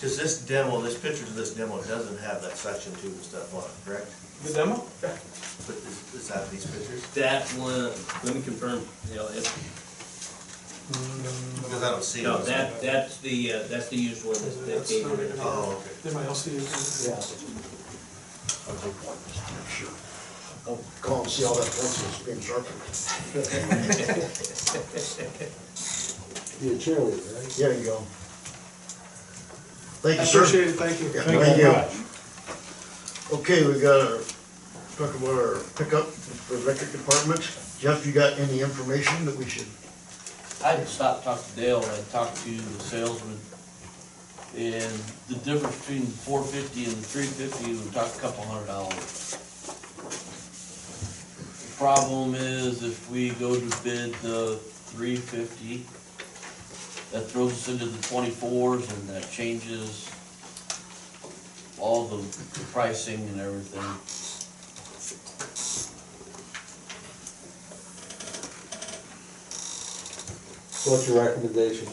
Cause this demo, this picture of this demo doesn't have that suction tube and stuff on it, correct? The demo? But is, is that these pictures? That one, let me confirm, you know, it's, Because I don't see no, those. that, that's the, uh, that's the used one that, that That's came not in. it. Oh, okay. Did my LCD? Yeah. I'll call and see how that pencil's being sharpened. Be a cheerleader, right? There you go. Thank I you, sir. appreciate it, thank you. Yeah, Thank thank you you. much. Okay, we got our, talk about our pickup for electric department. Jeff, you got any information that we should? I had stopped, talked to Dale, and I talked to the salesman, and the difference between the four fifty and the three fifty, we talked a couple hundred dollars. The Problem is, if we go to bid the three fifty, that throws us into the twenty-fours, and that changes all the the pricing and everything. So What's your recommendation?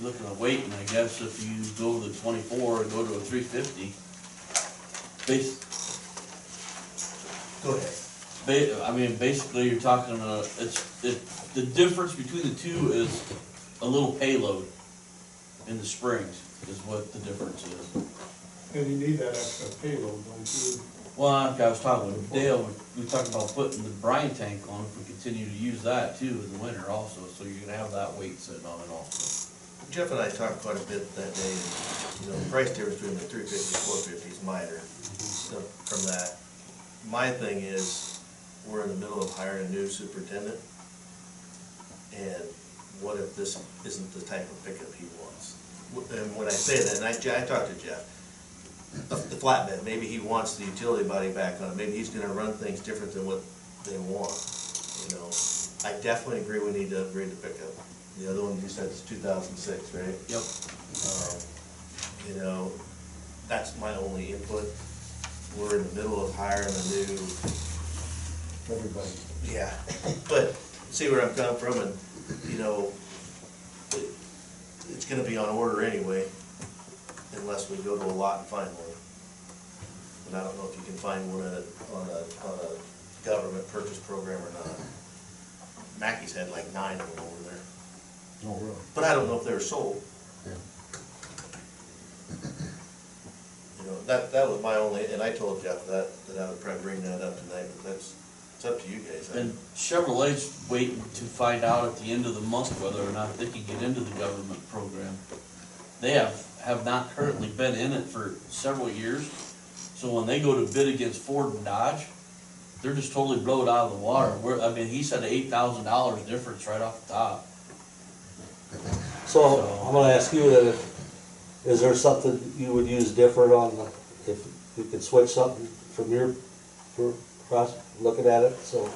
You're looking at weight, and I guess if you go to the twenty-four or go to a three fifty, bas- Go ahead. ba- I mean, basically, you're talking, uh, it's, it, the difference between the two is a little payload in the springs is what the difference is. And you need that extra payload, don't you? Well, like I was talking with Dale, we we talked about putting the brine tank on if we continue to use that too in the winter also, so you're gonna have that weight sitting on it also. Jeff and I talked quite a bit that day, and, you know, the price difference between the three fifty and four fifty is minor, so, from that. My thing is, we're in the middle of hiring a new superintendent, and what if this isn't the type of pickup he wants? Wh- And when I say that, and I, I talked to Jeff, the the flatbed, maybe he wants the utility body back on, it. maybe he's gonna run things different than what they want, you know? I definitely agree we need to upgrade the pickup. The other one you said is two thousand six, right? Yep. Um, You know, that's my only input. We're in the middle of hiring a new, Everybody. yeah, but see where I'm coming from and, you know, it- it's gonna be on order anyway, unless we go to a lot and find one. And I don't know if you can find one on a, on a, on a government purchase program or not. Mackey's had like nine of them over there, Oh, really? but I don't know if they were sold. Yeah. You know, that, that was my only, and I told Jeff that, that I would probably bring that up tonight, but that's, it's up to you guys. I- And Chevrolet's waiting to find out at the end of the month whether or not they can get into the government program. They have, have not currently been in it for several years, so when they go to bid against Ford and Dodge, they're just totally blown out of the water. We're, I mean, he said eight thousand dollars difference right off the top. So I'm gonna ask you that, if- is there something you would use different on, the- if you could switch something from your, for, pros- looking at it, so.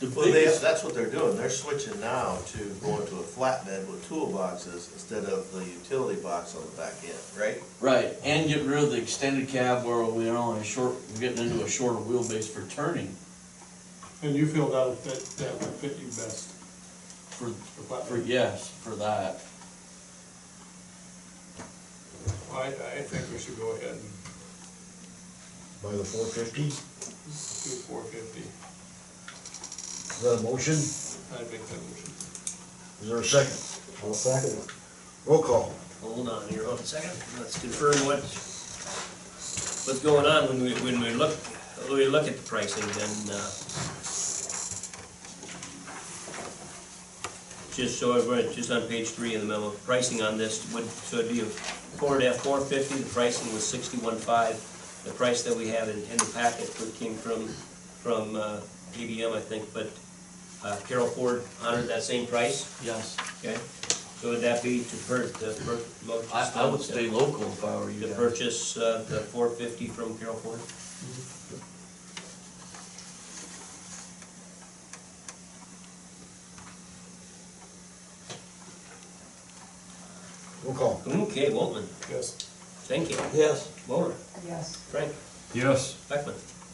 The Well, they, biggest, that's what they're doing, they're switching now to going to a flatbed with toolboxes instead of the utility box on the back end, right? right, and get rid of the extended cab where we're on a short, we're getting into a shorter wheelbase for turning And you feel that'll fit, that would fit you best, for, the for, platform? yes, for that. I, I think we should go ahead and By the four fifty? Is do four fifty, that a motion? I'd make that motion. Is there a second? I'll second it. Roll call. Hold on here, hold on a second, let's confirm what, what's going on when we, when we look, when we look at the pricing, then, uh, just so everybody, just on page three in the memo, pricing on this would, so it'd be a Ford F four fifty, the pricing was sixty-one five. The price that we have in, in the packet would came from, from, uh, GBM, I think, but, uh, Carol Ford honored that same price, Yes. okay? So would that be to per, the per, mo- I, I would stay local if I were you to guys. purchase uh, the four fifty from Carol Ford. Roll call. Okay, Waltman, Yes. thank you. Yes. Moller, Yes. Frank, Yes. Beckman.